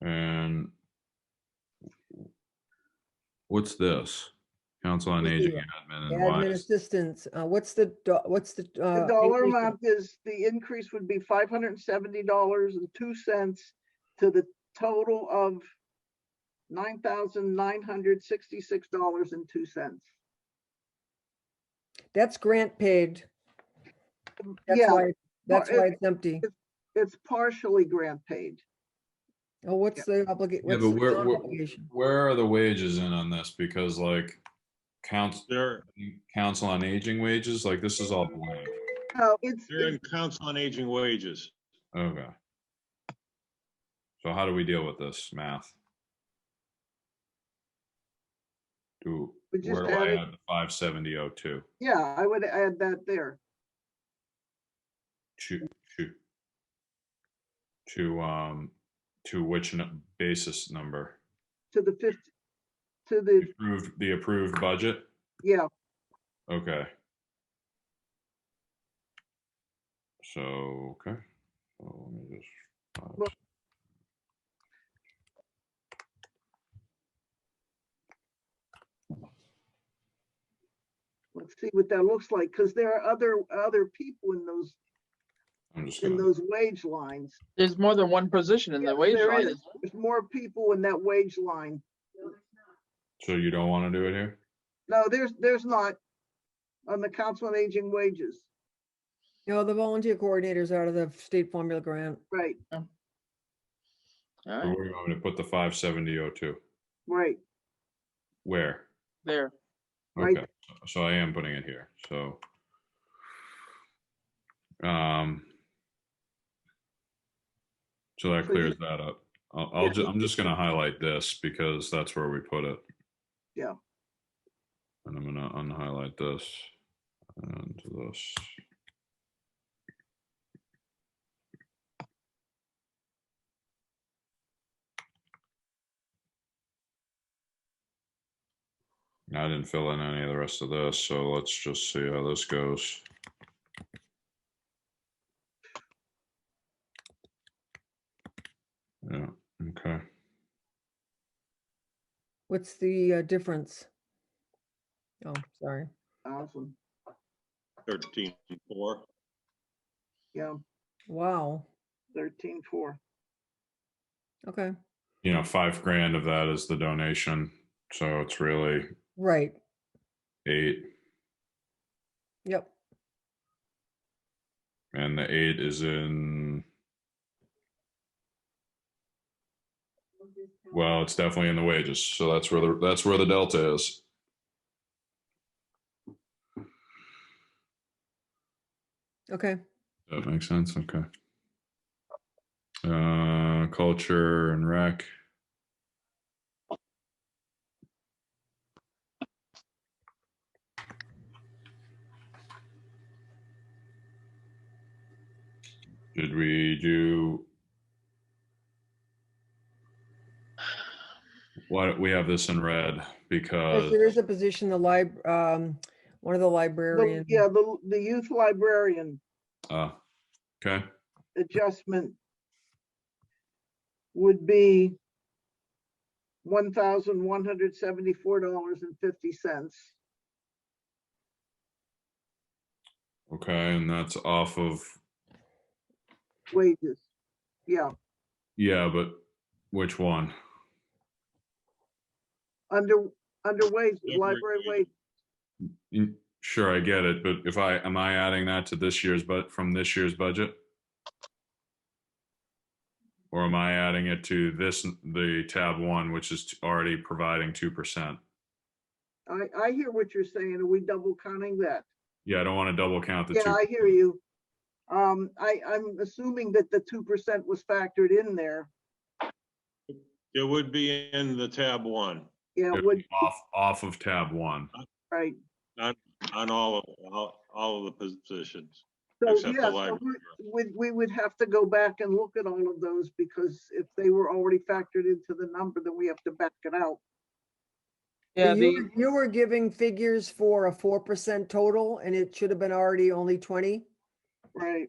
And what's this? Council on Let's do Aging that. admin and why Admin is, assistance, uh, what's the, do- what's the? The uh, dollar increase in- amount is, the increase would be five hundred and seventy dollars and two cents to the total of nine thousand nine hundred sixty-six dollars and two cents. That's grant paid. That's Yeah, why, that's it- why it's empty. it's partially grant paid. Oh, what's the obligation? yeah, but where, where, where are the wages in on this? Because like council, They're, council on aging wages, like this is all blank. No, it's, they're in it's- council on aging wages. Okay. So how do we deal with this math? Do, We just where do I added- add the five seventy oh two? yeah, I would add that there. To, to. To, um, to which nu- basis number? to the fifth, to The the, Approved, the approved budget? yeah, Okay. So, okay. So let me just. five, Well- s- let's see what that looks like, because there are other, other people in those, I'm just in gonna, those wage lines. There's more than one position in Yeah, the wage there line. is. There's more people in that wage line. so you don't want to do it here? No, there's, there's not on the Council on Aging wages, No, the volunteer coordinators out of the state formula grant. right, Or Alright, where do you want me to put the five seventy oh two? right. Where? There, Right. Okay, so I am putting it here, so. Um. So that So you- clears that up. I'll, I'll, Yeah. ju- I'm just gonna highlight this because that's where we put it. Yeah. And I'm gonna unhighlight this and this. I didn't fill in any of the rest of this, so let's just see how this goes. Yeah, okay. What's the uh, difference? Oh, sorry. Awesome, Thirteen four. yeah, Wow. thirteen, four. Okay, You know, five grand of that is the donation, so it's really right. eight, Yep. and the eight is in. Well, it's definitely in the wages, so that's where the, that's where the delta is. Okay. That makes sense, okay. Uh, culture and rec. Did we do? Why don't we have this in red Yes, because, There is a position, the lib, um, one of the librarian. Yeah, the, the youth librarian uh, okay, adjustment would be one thousand one hundred seventy-four dollars and fifty cents. okay, and that's off of, wages. Yeah, yeah, but which one? under, under wage, library wages. wage, Mm, Sure, I get it, but if I, am I adding that to this year's, but from this year's budget? Or am I adding it to this, the tab one, which is t- already providing two percent? I, I hear what you're saying. Are we double counting that? Yeah, I don't want to double count the Yeah, I two. hear you. Um, I, I'm assuming that the two percent was factored in there. It would be in the tab one, Yeah, It'd would, be Off, off of tab one. right. on all of, all, all of the positions. So, Except the yeah, so library. we, we'd- we would have to go back and look at all of those because if they were already factored into the number, then we have to back it out. yeah, But You the, were- you were giving figures for a four percent total and it should have been already only twenty? Right.